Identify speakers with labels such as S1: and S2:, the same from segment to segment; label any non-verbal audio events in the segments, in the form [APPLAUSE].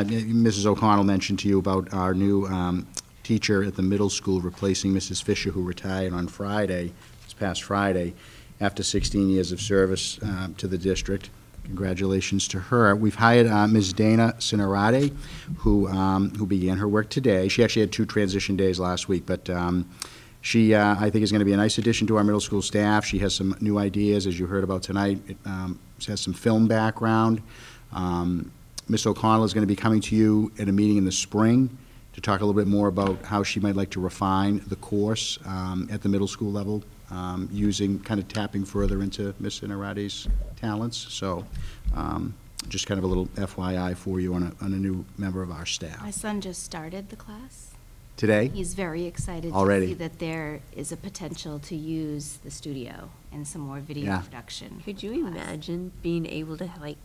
S1: Uh, Mrs. O'Connell mentioned to you about our new um, teacher at the middle school replacing Mrs. Fisher, who retired on Friday, this past Friday, after 16 years of service uh, to the district. Congratulations to her. We've hired uh, Ms. Dana Cinerati, who, um, who began her work today. She actually had two transition days last week, but um, she, uh, I think, is going to be a nice addition to our middle school staff. She has some new ideas, as you heard about tonight. It, um, She has some film background. Um, Ms. O'Connell is going to be coming to you at a meeting in the spring to talk a little bit more about how she might like to refine the course um, at the middle school level, um, using, kind of tapping further into Ms. Inarati's talents. So um, just kind of a little FYI for you on a, on a new member of our
S2: My
S1: staff.
S2: son just started the class.
S1: Today?
S2: He's very excited
S1: Already.
S2: to see that there is a potential to use the studio and some more video
S1: Yeah.
S2: production.
S3: Could you
S2: class.
S3: imagine being able to like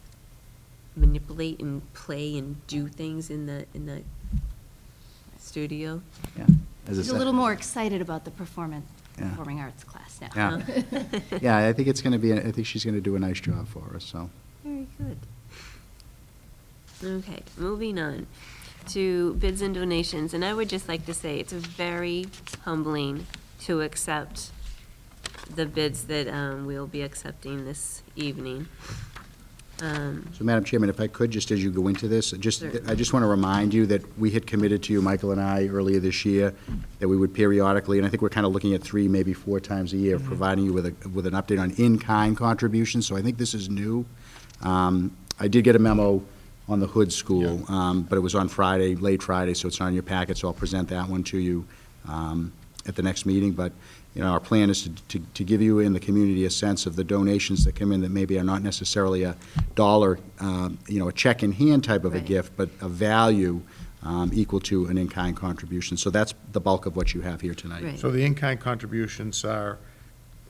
S3: manipulate and play and do things in the, in the studio?
S1: Yeah. As I
S2: He's a
S1: said-
S2: little more excited about the performance,
S1: Yeah.
S2: performing arts class now.
S1: Yeah.
S2: [LAUGHS]
S1: Yeah, I think it's going to be, I think she's going to do a nice job for us, so.
S3: Very good. Okay, moving on to bids and donations, and I would just like to say it's very humbling to accept the bids that um, we'll be accepting this evening. Um,
S1: So, Madam Chairman, if I could, just as you go into this, just,
S3: Certainly.
S1: I just want to remind you that we had committed to you, Michael and I, earlier this year, that we would periodically, and I think we're kind of looking at three, maybe four times a year, providing you with a, with an update on in-kind contributions, so I think this is new. Um, I did get a memo on the Hood School, um, but it was on Friday, late Friday, so it's not in your packet, so I'll present that one to you um, at the next meeting, but, you know, our plan is to, to, to give you in the community a sense of the donations that come in that maybe are not necessarily a dollar, um, you know, a check in hand type of a
S3: Right.
S1: gift, but a value um, equal to an in-kind contribution. So that's the bulk of what you have here tonight.
S3: Right.
S4: So the in-kind contributions are,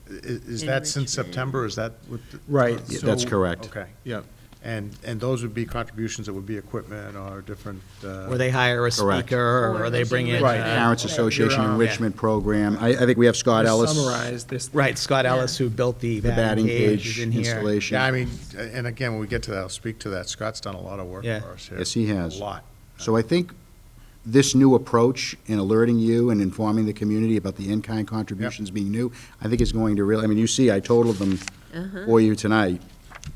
S4: i- is that since September, is that what? the-
S1: Right. Yeah, that's
S4: so-
S1: correct.
S4: Okay, yeah, and, and those would be contributions that would be equipment or different, uh,
S5: Or they hire a
S1: Correct.
S5: speaker, or they bring in.
S4: Right.
S5: uh,
S1: Parents
S4: Right.
S1: Association
S4: You're on.
S1: Enrichment Program. I, I think we have Scott Ellis.
S6: Summarize this.
S5: Right, Scott Ellis, who built the
S1: The batting
S5: cage
S1: cage
S5: is in here.
S1: installation.
S4: yeah, I mean, and again, when we get to that, I'll speak to that, Scott's done a lot of work
S5: Yeah.
S4: for us here.
S1: Yes, he has.
S4: A lot.
S1: So I think this new approach in alerting you and informing the community about the in-kind contributions being new, I think is going to really, I mean, you see, I totaled them
S3: Uh-huh.
S1: for you tonight.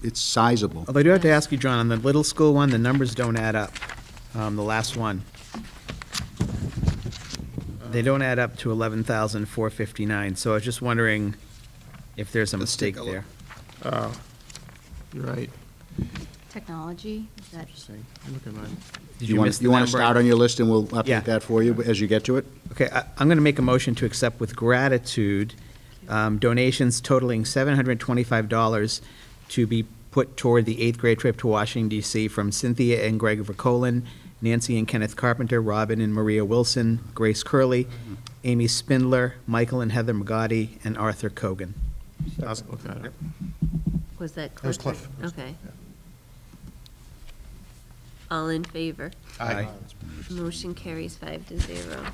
S1: It's sizable.
S5: Although I do have to ask you, John, on the little school one, the numbers don't add up, um, the last one. They don't add up to eleven thousand four fifty-nine, so I was just wondering if there's a
S6: Let's take
S5: mistake
S6: a look.
S5: there.
S6: Oh, you're right.
S2: Technology, is that,
S6: Interesting. Look at mine.
S5: Did
S1: wanna-
S5: miss the
S1: You want to
S5: number?
S1: start on your list, and we'll
S5: Yeah.
S1: update that for you as you get to it?
S5: Okay, I- I'm going to make a motion to accept with gratitude um, donations totaling $725 to be put toward the eighth grade trip to Washington DC from Cynthia and Greg Vercolen, Nancy and Kenneth Carpenter, Robin and Maria Wilson, Grace Curley,
S1: Mm-hmm.
S5: Amy Spindler, Michael and Heather McGotti, and
S1: [LAUGHS]
S5: Arthur Cogan.
S4: How's-
S6: Look at it.
S3: Was that Cliff?
S4: was Cliff.
S3: Okay. All in favor?
S4: I-
S5: Aye.
S3: Motion carries five to zero.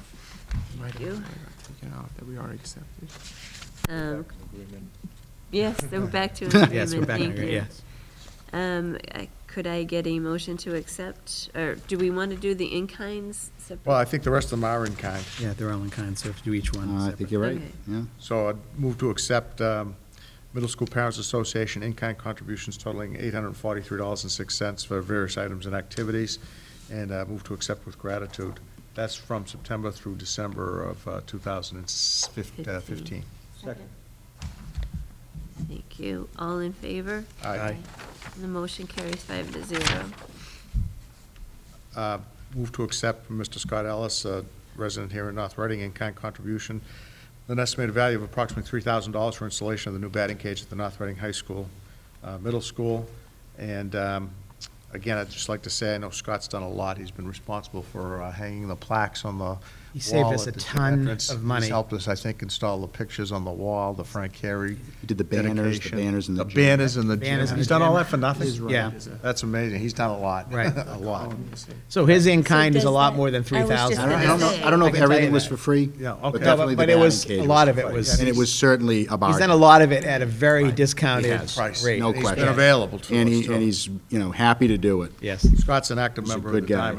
S6: Might have-
S3: You?
S6: might have taken out that we already accepted.
S3: Um, Yes, so we're back to
S5: [LAUGHS]
S3: an agreement.
S5: Yes, we're back on
S3: Thank
S5: it,
S3: you.
S5: yes.
S3: Um, I- Could I get a motion to accept, or do we want to do the in-kinds separate?
S4: Well, I think the rest of them are in-kind,
S5: Yeah, they're all in kind, so if you do each one.
S1: Uh, I think you're right,
S3: Okay.
S1: yeah.
S4: so I'd move to accept um, Middle School Parents Association in-kind contributions totaling $843.06 for various items and activities, and uh, move to accept with gratitude. That's from September through December of uh, 2015.
S2: second?
S3: Thank you. All in favor?
S4: Aye.
S3: The motion carries five to zero.
S4: Uh, Move to accept from Mr. Scott Ellis, a resident here in North Reading, in-kind contribution, an estimated value of approximately $3,000 for installation of the new batting cage at the North Reading High School, uh, Middle School. And um, again, I'd just like to say, I know Scott's done a lot. He's been responsible for uh, hanging the plaques on the
S5: He saved
S4: wall
S5: us a
S4: at the
S5: ton
S4: entrance.
S5: of money.
S4: He's helped us, I think, install the pictures on the wall, the Frank Carey
S1: He did the banners, the
S4: dedication.
S1: banners in the gym.
S4: banners in the gym.
S5: Banners in the
S4: He's done all
S5: gym.
S4: that for nothing?
S5: He's right. Yeah.
S4: That's amazing. He's done a lot.
S5: Right.
S4: [LAUGHS] A lot.
S5: So his in-kind is a
S7: does
S5: lot
S7: that-
S5: more than
S7: I was just
S5: 3,000.
S1: I don't, I don't know, I don't know
S5: I
S1: if
S5: can tell you
S1: everything was
S5: that.
S1: for free.
S4: Yeah, okay.
S1: But
S4: No,
S1: definitely
S5: but- but
S1: the
S5: it
S1: batting
S5: was-
S1: cage
S5: a lot
S1: for
S5: of it
S1: free.
S5: was-
S1: And it was certainly a
S5: He's done a
S1: bargain,
S5: lot of it at a very discounted
S1: has.
S4: Price.
S5: rate.
S1: no
S4: He's been
S1: question.
S4: available to
S1: And
S4: us,
S1: he,
S4: too.
S1: and he's, you know, happy to do it.
S5: Yes.
S4: Scott's an active
S1: He's a
S4: member of
S1: good
S4: the
S1: guy.
S4: Diamond